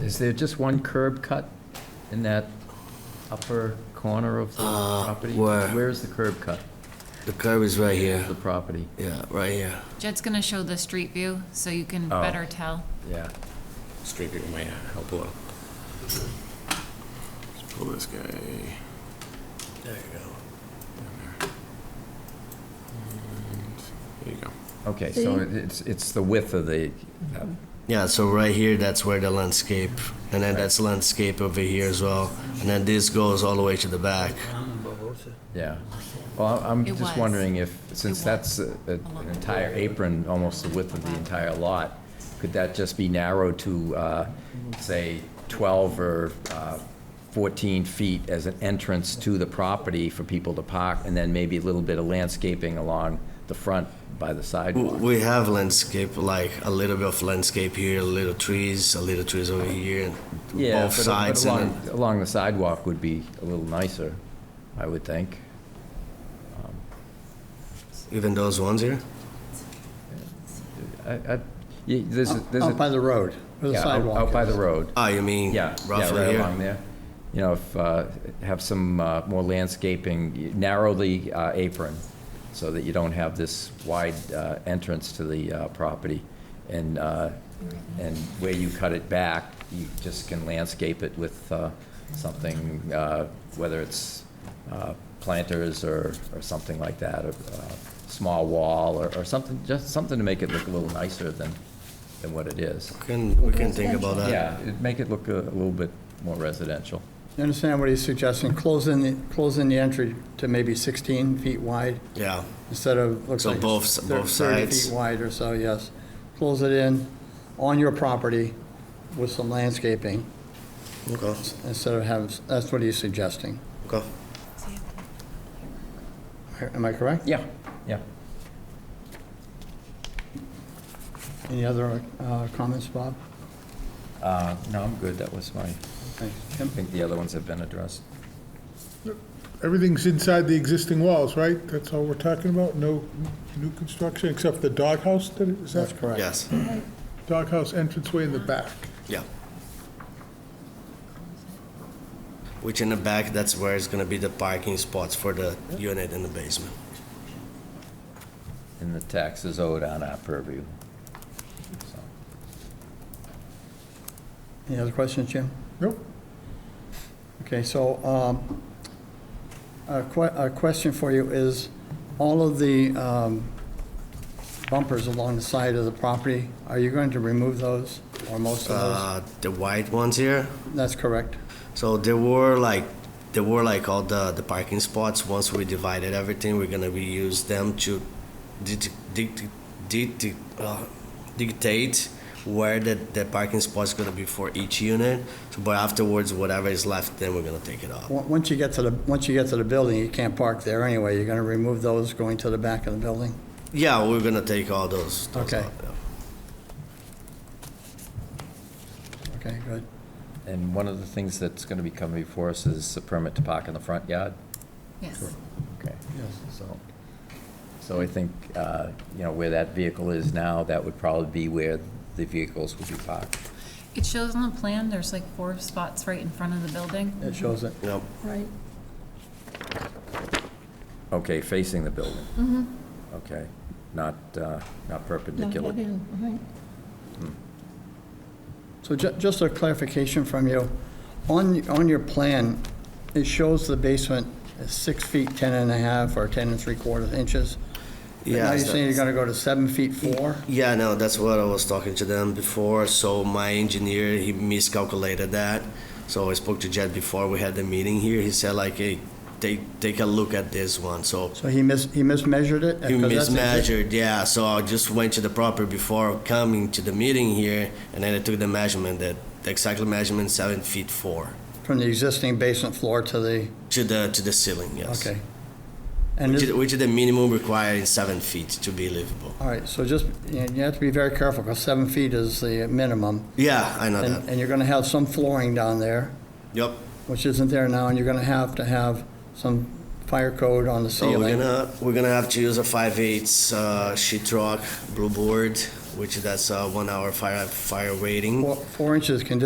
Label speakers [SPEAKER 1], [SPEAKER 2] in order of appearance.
[SPEAKER 1] Is there just one curb cut in that upper corner of the
[SPEAKER 2] Uh,
[SPEAKER 1] property?
[SPEAKER 2] where?
[SPEAKER 1] Where is the curb cut
[SPEAKER 2] The curb is right
[SPEAKER 1] of
[SPEAKER 2] here.
[SPEAKER 1] the property?
[SPEAKER 2] Yeah, right here.
[SPEAKER 3] Jed's gonna show the street view, so you can
[SPEAKER 1] Oh.
[SPEAKER 3] better tell.
[SPEAKER 1] Yeah.
[SPEAKER 4] Straight people might help a little. Let's pull this guy. There you go. Mm, There you go.
[SPEAKER 1] Okay, so it's, it's the width of the, uh,
[SPEAKER 2] Yeah, so right here, that's where the landscape, and then that's landscape over here as well. And then this goes all the way to the back.
[SPEAKER 1] yeah. Well, I- I'm
[SPEAKER 3] It
[SPEAKER 1] just
[SPEAKER 3] was.
[SPEAKER 1] wonder if, since
[SPEAKER 3] was.
[SPEAKER 1] that's a- a- an entire apron, almost the width of the entire lot, could that just be narrowed to, uh, say, 12 or uh, 14 feet as an entrance to the property for people to park, and then maybe a little bit of landscaping along the front by the
[SPEAKER 2] W-
[SPEAKER 1] sidewalk?
[SPEAKER 2] We have landscape, like a little bit of landscape here, little trees, a little trees over here, and
[SPEAKER 1] Yeah,
[SPEAKER 2] both
[SPEAKER 1] but- but
[SPEAKER 2] sides. and
[SPEAKER 1] along- Along the sidewalk would be a little nicer, I would think.
[SPEAKER 2] then even those ones here.
[SPEAKER 1] I- I- y- There's, a- there's a...
[SPEAKER 5] Out by the road, where the
[SPEAKER 1] Yeah, out-
[SPEAKER 5] sidewalk
[SPEAKER 1] Out by
[SPEAKER 5] is.
[SPEAKER 1] the road.
[SPEAKER 2] Oh, you mean
[SPEAKER 1] Yeah, yeah,
[SPEAKER 2] roughly
[SPEAKER 1] right
[SPEAKER 2] here?
[SPEAKER 1] along there. You know, if, uh, have some uh, more landscaping, narrow the uh, apron so that you don't have this wide uh, entrance to the uh, property. And, uh, and where you cut it back, you just can landscape it with uh, something, uh, whether it's uh, planters or, or something like that, or a small wall or, or something, just something to make it look a little nicer than, than what it is.
[SPEAKER 2] Can, we can think about that.
[SPEAKER 1] Yeah, it'd make it look a little bit more residential.
[SPEAKER 5] You understand what he's suggesting? Close in, the close in the entry to maybe 16 feet wide
[SPEAKER 2] Yeah.
[SPEAKER 5] instead of, looks
[SPEAKER 2] So
[SPEAKER 5] like
[SPEAKER 2] both-
[SPEAKER 5] it's
[SPEAKER 2] both
[SPEAKER 5] thir- 30
[SPEAKER 2] sides?
[SPEAKER 5] feet wide or so, yes. Close it in on your property with some landscaping
[SPEAKER 2] Okay.
[SPEAKER 5] instead of having, that's what he's suggesting.
[SPEAKER 2] Okay.
[SPEAKER 5] Am I correct?
[SPEAKER 1] Yeah, yeah.
[SPEAKER 5] Any other uh, comments, Bob?
[SPEAKER 1] Uh, No, I'm good, that was my,
[SPEAKER 5] Thanks.
[SPEAKER 1] I
[SPEAKER 5] Tim?
[SPEAKER 1] think the other ones have been addressed.
[SPEAKER 6] Everything's inside the existing walls, right? That's all we're talking about? No new construction, except the doghouse, that is
[SPEAKER 5] That's
[SPEAKER 6] that
[SPEAKER 5] correct.
[SPEAKER 2] Yes.
[SPEAKER 6] doghouse entranceway in the back?
[SPEAKER 2] Yeah. Which in the back, that's where it's gonna be the parking spots for the unit in the basement.
[SPEAKER 1] And the taxes owed on our purview. So,
[SPEAKER 5] Any other questions, Jim?
[SPEAKER 6] Nope.
[SPEAKER 5] Okay, so um, a que- a question for you is, all of the um, bumpers along the side of the property, are you going to remove those or most of
[SPEAKER 2] Uh, the white ones here,
[SPEAKER 5] those? That's correct.
[SPEAKER 2] so there were like, there were like all the, the parking spots, once we divided everything, we're gonna reuse them to dict- dict- dict- uh, dictate where the, the parking spot's gonna be for each unit, So, but afterwards, whatever is left, then we're gonna take it off.
[SPEAKER 5] Wa- Once you get to the, once you get to the building, you can't park there anyway. You're going to remove those going to the back of the building?
[SPEAKER 2] Yeah, we're gonna take all those. those
[SPEAKER 5] Okay.
[SPEAKER 2] out, yeah.
[SPEAKER 5] Okay, good.
[SPEAKER 1] And one of the things that's going to be coming before us is a permit to park in the front yard.
[SPEAKER 3] Yes.
[SPEAKER 1] Okay.
[SPEAKER 5] Yes.
[SPEAKER 1] So, so I think, uh, you know, where that vehicle is now, that would probably be where the vehicles would be parked.
[SPEAKER 3] It shows on the plan, there's like four spots right in front of the building.
[SPEAKER 5] It shows it.
[SPEAKER 2] Yep.
[SPEAKER 7] Right.
[SPEAKER 1] Okay, facing the building? Mm-hmm. Okay, not, uh, not
[SPEAKER 7] Not
[SPEAKER 1] perpendicular?
[SPEAKER 7] that in, right.
[SPEAKER 5] So ju- just a clarification from you. On, on your plan, it shows the basement is six feet, 10 and a half, or 10 and three quarters inches. But
[SPEAKER 2] Yeah,
[SPEAKER 5] now you're
[SPEAKER 2] so-
[SPEAKER 5] saying you're gonna go to seven feet four?
[SPEAKER 2] Yeah, no, that's what I was talking to them before. So my engineer, he miscalculated that. So I spoke to Jed before we had the meeting here. He said like, hey, take take a look at this one. So
[SPEAKER 5] So he mis, he mismeasured it?
[SPEAKER 2] he
[SPEAKER 5] 'Cause that's exa-
[SPEAKER 2] mismeasured, yeah. So I just went to the property before coming to the meeting here, and then I took the measurement. That the exact measurement seven feet four
[SPEAKER 5] From the existing basement floor to the,
[SPEAKER 2] to the to the ceiling. Yes.
[SPEAKER 5] okay. And
[SPEAKER 2] Which
[SPEAKER 5] this,
[SPEAKER 2] is, which is the minimum required is seven feet to be livable.
[SPEAKER 5] all right, so just, you you have to be very careful, because seven feet is the minimum.
[SPEAKER 2] Yeah, I know
[SPEAKER 5] And,
[SPEAKER 2] that.
[SPEAKER 5] and you're gonna have some flooring down there,
[SPEAKER 2] Yep.
[SPEAKER 5] which isn't there now, and you're gonna have to have some fire code on the
[SPEAKER 2] So
[SPEAKER 5] ceiling.
[SPEAKER 2] Oh, we're gonna we're gonna have to use a five eighths uh, sheetrock blue board, which that's uh, one hour fire fire rating.
[SPEAKER 5] Four- Four inches can